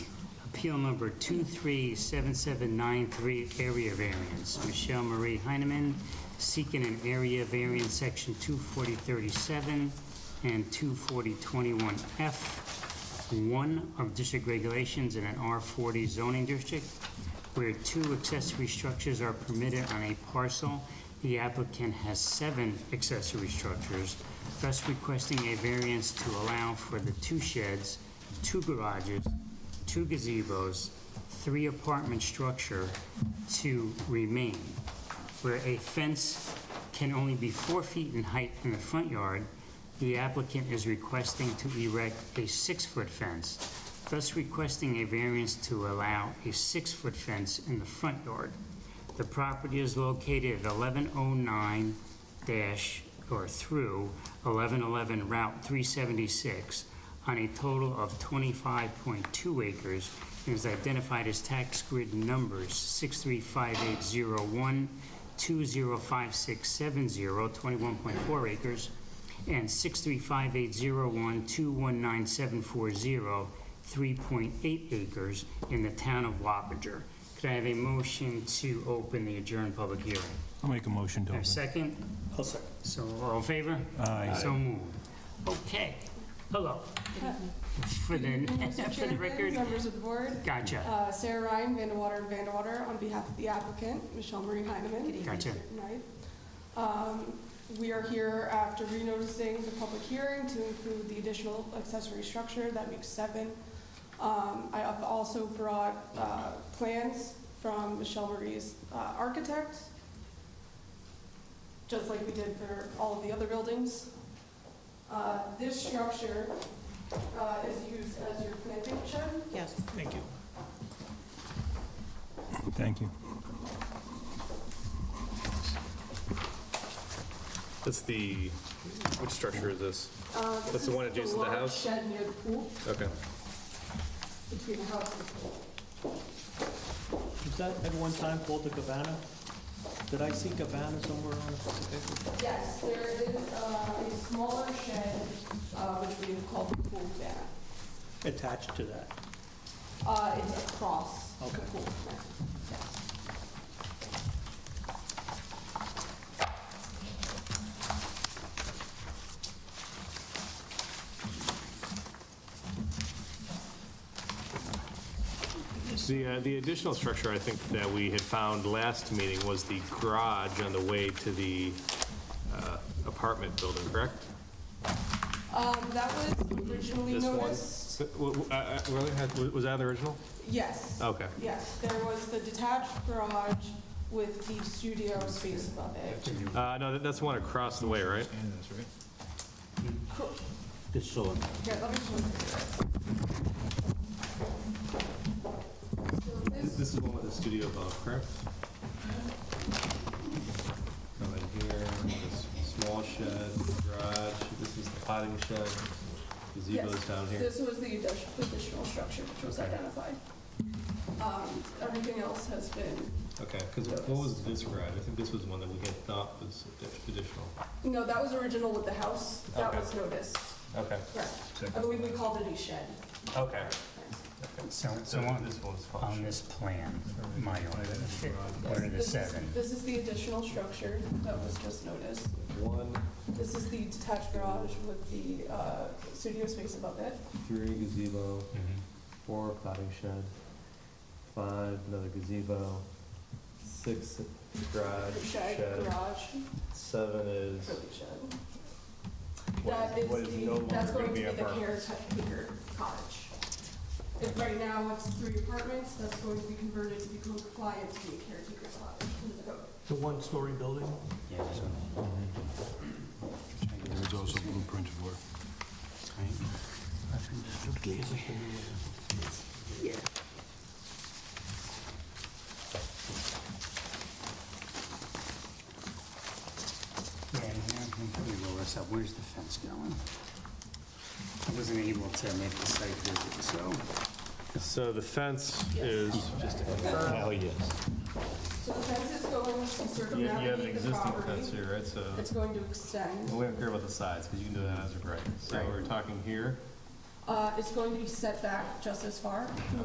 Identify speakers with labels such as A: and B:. A: appeal number 237793, area variance. Michelle Marie Heineman seeking an area variance, section 24037 and 24021F, one of district regulations in an R40 zoning district, where two accessory structures are permitted on a parcel. The applicant has seven accessory structures, thus requesting a variance to allow for the two sheds, two garages, two gazebos, three apartment structure to remain, where a fence can only be four feet in height in the front yard, the applicant is requesting to erect a six-foot fence, thus requesting a variance to allow a six-foot fence in the front yard. The property is located at 1109 dash, or through 1111 Route 376 on a total of 25.2 acres and is identified as tax grid numbers 635801, 205670, 21.4 acres, and 635801, 219740, 3.8 acres in the town of Wappinger. Could I have a motion to open the adjourned public hearing?
B: I'll make a motion to
A: Have a
B: open.
A: second?
C: I'll second.
A: So, all in favor?
B: Aye.
A: So moved. Okay, hello. For the,
D: Mr.
A: for the
D: Chairman,
A: record,
D: members of the board,
A: gotcha,
D: uh, Sarah Ryan, Vandewater and Vandewater, on behalf of the applicant, Michelle Marie Heineman.
A: Gotcha.
D: Right. Um, We are here after renoticing the public hearing to include the additional accessory structure, that makes seven. Um, I have also brought uh, plans from Michelle Marie's uh, architect, just like we did for all of the other buildings. Uh, This structure uh, is used as your planting shed.
E: Yes.
C: Thank you.
B: Thank you.
F: That's the, which structure is this?
D: Uh,
F: That's
D: this
F: the
D: is
F: one adjacent to the
D: large
F: house?
D: Shed near the pool,
F: Okay.
D: between the house and the pool.
C: Was that at one time called the Cabana? Did I see Cabana somewhere on this picture?
D: Yes, there is uh, a smaller shed, uh, which we have called the pool cabana.
C: Attached to that.
D: Uh, It's across the
C: Okay.
D: pool cabana. Yes.
F: The, uh, the additional structure I think that we had found last meeting was the garage on the way to the uh, apartment building, correct?
D: Um, That was originally
F: This one?
D: noticed.
F: So, w- w- uh, uh, really? Had- w- Was that the original?
D: Yes.
F: Okay.
D: Yes, there was the detached garage with the studio space above it.
F: Uh, no, that- that's the one across the way, right?
D: Cool.
G: This sort.
D: Here, let me show you this. So this
F: This is the one with the studio above, correct?
H: Come in here, this small shed, garage, this is the potting shed,
D: Yes.
H: gazebo's down here.
D: This was the addition- additional structure which was identified. Um, Everything else has been,
H: Okay, because what was this garage? I think this was one that we had thought was addi- additional.
D: no, that was original with the house. That
F: Okay.
D: was noticed.
F: Okay,
D: Correct. I believe we called it a shed.
F: okay.
A: so, so on,
H: This one was
A: on
H: function.
A: this plan, my order, what are the
D: This is-
A: seven?
D: This is the additional structure that was just noticed.
H: One,
D: This is the detached garage with the uh, studio space above it.
H: three gazebo, four potting shed, five, another gazebo, six garage,
D: The shed,
H: shed,
D: garage,
H: seven is,
D: really shed.
H: What
D: That
H: is-
D: is
H: what is no
D: the,
H: longer
D: that's going to
H: gonna
D: be
H: be
D: the
H: apartments.
D: caretaker cottage. If right now it's three apartments, that's going to be converted to become compliant to be a caretaker cottage under the code.
C: The one-story building?
A: Yeah, this one.
B: There's also blueprint for it.
A: Yeah, and now we can probably roll this up, where's the fence going? I wasn't able to make the site visit, so.
F: So the fence is, Oh,
G: Hell, yes.
D: So the fence is going to
H: you you have an
D: circumnavigate the
H: existing fence
D: property.
H: here, right? So
D: It's going to extend,
H: Well, we don't care about the sides, because you can do that as a right. So
A: Right.
H: we're talking here.
D: uh, it's going to be set back just as far